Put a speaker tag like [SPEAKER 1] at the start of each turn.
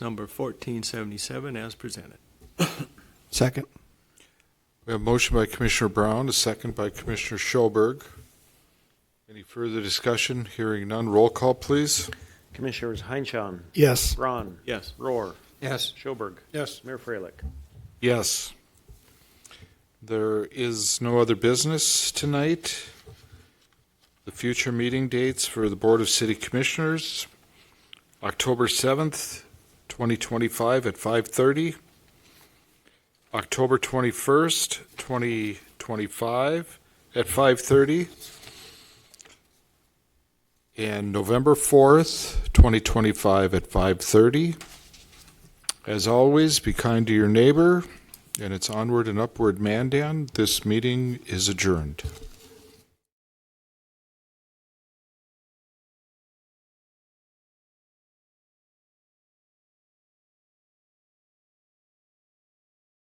[SPEAKER 1] number 1477 as presented.
[SPEAKER 2] Second.
[SPEAKER 3] We have a motion by Commissioner Brown, a second by Commissioner Schoberg. Any further discussion? Hearing none. Roll call, please.
[SPEAKER 4] Commissioners Heinchan,
[SPEAKER 2] Yes.
[SPEAKER 4] Braun,
[SPEAKER 1] Yes.
[SPEAKER 4] Roar,
[SPEAKER 2] Yes.
[SPEAKER 4] Schoberg,
[SPEAKER 2] Yes.
[SPEAKER 4] Mayor Freilich.
[SPEAKER 3] Yes. There is no other business tonight. The future meeting dates for the Board of City Commissioners, October 7th, 2025 at 5:30, October 21st, 2025 at 5:30, and November 4th, 2025 at 5:30. As always, be kind to your neighbor, and it's onward and upward, Mandan. This meeting is adjourned.